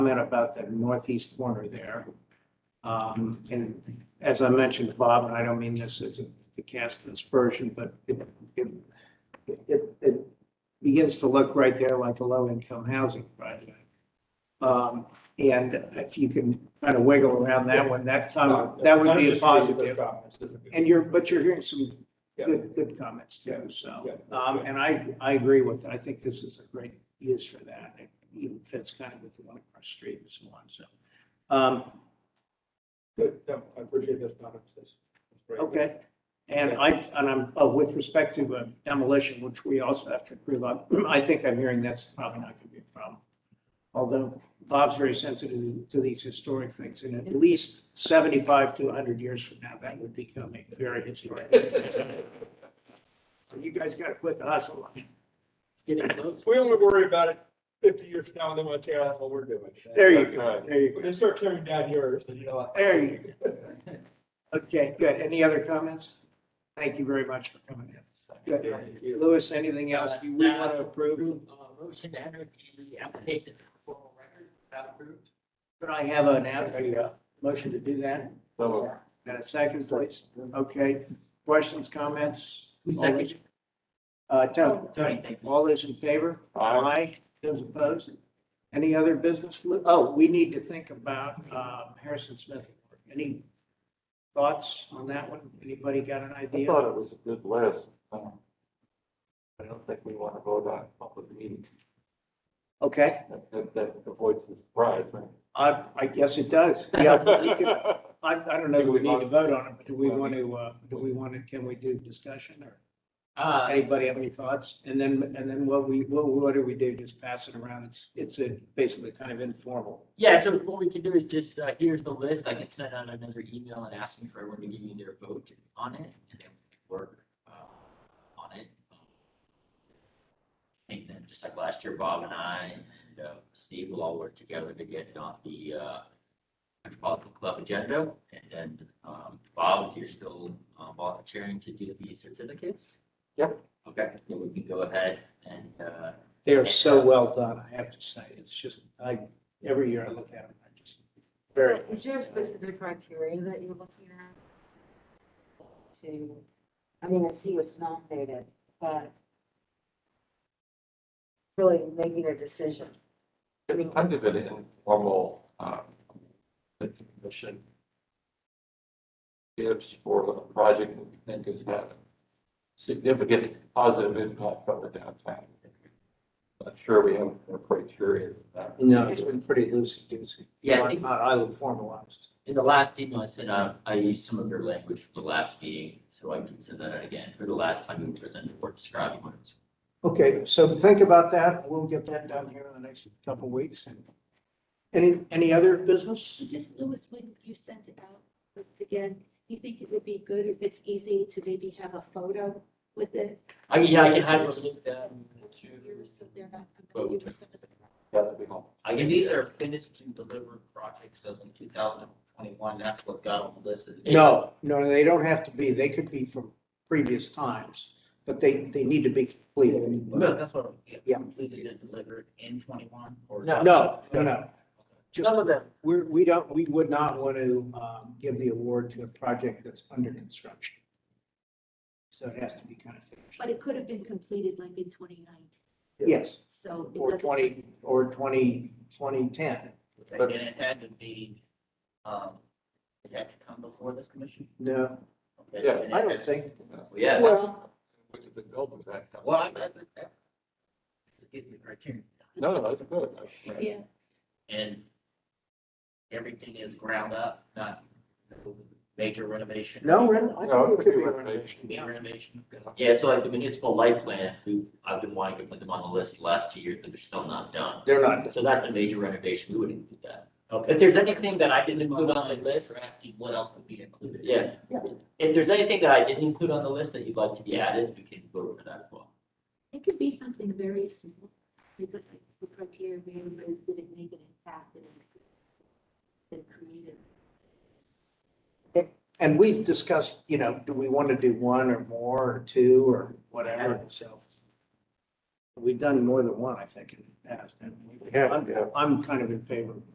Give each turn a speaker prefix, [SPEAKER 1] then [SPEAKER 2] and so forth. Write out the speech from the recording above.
[SPEAKER 1] comment about the northeast corner there. Um, and as I mentioned to Bob, and I don't mean this as a- to cast an aspersion, but it, it, it, it begins to look right there like a low-income housing project. Um, and if you can kind of wiggle around that one, that,
[SPEAKER 2] No,
[SPEAKER 1] um, that would
[SPEAKER 2] none of
[SPEAKER 1] be a
[SPEAKER 2] this really good
[SPEAKER 1] positive.
[SPEAKER 2] comments, this is good.
[SPEAKER 1] And you're, but you're hearing some
[SPEAKER 2] Yeah.
[SPEAKER 1] good, good comments too, so,
[SPEAKER 2] Yeah.
[SPEAKER 1] um, and I, I agree with, it. I think this is a great use for that. It even fits kind of with the one across the street and so on, so. Um,
[SPEAKER 2] Good, no, I appreciate those comments. That's- that's great.
[SPEAKER 1] okay, and I, and I'm, oh, with respect to uh, demolition, which we also have to approve, I, I think I'm hearing that's probably not gonna be a problem. Although Bob's very sensitive to these historic things, and at least seventy-five to hundred years from now, that would become a very historic. So you guys gotta quit the hustle.
[SPEAKER 3] Getting close.
[SPEAKER 2] We only worry about it fifty years from now, and then we'll tear out what we're doing.
[SPEAKER 1] There you
[SPEAKER 2] That's
[SPEAKER 1] go,
[SPEAKER 2] right.
[SPEAKER 1] there you go.
[SPEAKER 2] When they start tearing down yours, then you know. what?
[SPEAKER 1] There you Okay, good. Any other comments? Thank you very much for coming in. Good. Louis, anything else you we want to approve?
[SPEAKER 3] Uh, Motion to enter the application to formal record, that approved.
[SPEAKER 1] Could I have an, ad- a uh, motion to do that? And a second, please? Okay. Questions, comments?
[SPEAKER 3] Who seconded?
[SPEAKER 1] Uh, Tony,
[SPEAKER 3] Oh, Tony, thank you.
[SPEAKER 1] all those in favor? Aye. Those opposed? Any other business? Lou? Oh, we need to think about um, Harrison Smith. Any thoughts on that one? Anybody got an
[SPEAKER 4] I
[SPEAKER 1] idea?
[SPEAKER 4] thought it was a good list. Um, I don't think we want to vote on public meeting.
[SPEAKER 1] Okay.
[SPEAKER 4] That- That, that avoids the surprise, right?
[SPEAKER 1] I, I guess it does. Yeah, we could, I, I don't know that we need to vote on it, but do we want to, uh, do we want to, can we do discussion or
[SPEAKER 3] Uh,
[SPEAKER 1] anybody have any thoughts? And then, and then what we, what, what do we do? Just pass it around? It's, it's a basically kind of informal.
[SPEAKER 3] yeah, so what we can do is just, uh, here's the list. I can send out another email and ask them for everyone to give you their vote on it and then we can work, uh, on it. Um, And then just like last year, Bob and I and uh, Steve will all work together to get it on the, uh, Metropolitan Club agenda. And then, um, Bob, if you're still uh, volunteering to do these certificates?
[SPEAKER 4] Yep.
[SPEAKER 3] Okay, then we can go ahead and, uh,
[SPEAKER 1] They are so well done, I have to say. It's just, I, every year I look at them, I just, very.
[SPEAKER 5] Is there a specific criteria that you're looking at? To, I mean, I see what's nominated, but really making a decision. I mean-
[SPEAKER 4] Kind of an informal, um, that the commission gives for a project that we think is having significant positive impact on the downtown. Not sure we have a criteria for that.
[SPEAKER 1] No, it's been pretty loosey goosey.
[SPEAKER 3] yeah, I think
[SPEAKER 1] Not, not highly formalized.
[SPEAKER 3] In the last email I sent out, I used some of your language for the last meeting, so I can send that out again for the last time you presented or describing what it was.
[SPEAKER 1] Okay, so think about that. We'll get that done here in the next couple of weeks. And Any, any other business?
[SPEAKER 6] So just, Louis, when you sent it out, just again, do you think it would be good if it's easy to maybe have a photo with it?
[SPEAKER 3] I, yeah, I can have you link them to,
[SPEAKER 6] So they're not competing with some of the.
[SPEAKER 4] That'd be helpful.
[SPEAKER 7] I mean, these are finished and delivered projects, as in two thousand twenty-one, that's what got on the list. of the-
[SPEAKER 1] No, no, they don't have to be. They could be from previous times, but they, they need to be completed.
[SPEAKER 7] No, that's what, yeah,
[SPEAKER 1] Yeah.
[SPEAKER 7] completed and delivered in twenty-one or?
[SPEAKER 3] No.
[SPEAKER 1] No, no, no. Just,
[SPEAKER 3] some of them,
[SPEAKER 1] we're, we don't, we would not want to, um, give the award to a project that's under construction. So it has to be kind of
[SPEAKER 6] But
[SPEAKER 1] finished.
[SPEAKER 6] it could have been completed like in twenty nineteen,
[SPEAKER 1] Yes,
[SPEAKER 6] so. it
[SPEAKER 1] or
[SPEAKER 6] doesn't-
[SPEAKER 1] twenty, or twenty, twenty ten.
[SPEAKER 7] And it had to be, um, it had to come before this commission?
[SPEAKER 1] No,
[SPEAKER 7] Okay,
[SPEAKER 4] Yeah,
[SPEAKER 7] and it
[SPEAKER 1] I don't
[SPEAKER 7] has-
[SPEAKER 1] think,
[SPEAKER 3] yeah. that-
[SPEAKER 1] well,
[SPEAKER 4] We could have built with that.
[SPEAKER 7] Well, I, I, that. Just give me the criteria.
[SPEAKER 4] No, no, that's good. That's-
[SPEAKER 6] Yeah,
[SPEAKER 7] And everything is ground up, not major renovation.
[SPEAKER 1] no, ren- I
[SPEAKER 4] No,
[SPEAKER 1] think it could be a renovation.
[SPEAKER 7] Big
[SPEAKER 1] yeah.
[SPEAKER 7] renovation.
[SPEAKER 3] Yeah, so like the municipal light plan, we, I've been wanting to put them on the list the last two years, but they're still not done.
[SPEAKER 1] They're not,
[SPEAKER 3] So that's a major renovation, we wouldn't include that. If there's anything that I didn't include on the list,
[SPEAKER 7] Or asking what else could be included.
[SPEAKER 3] yeah.
[SPEAKER 1] Yeah.
[SPEAKER 3] If there's anything that I didn't include on the list that you'd like to be added, we can vote for that as well.
[SPEAKER 6] it could be something very simple, because like the criteria, of everybody's didn't make an impact and it- it created.
[SPEAKER 1] and we've discussed, you know, do we want to do one or more or two or whatever, so. We've done more than one, I think, in the past, and we-
[SPEAKER 4] Yeah, yeah.
[SPEAKER 1] I'm kind of in favor of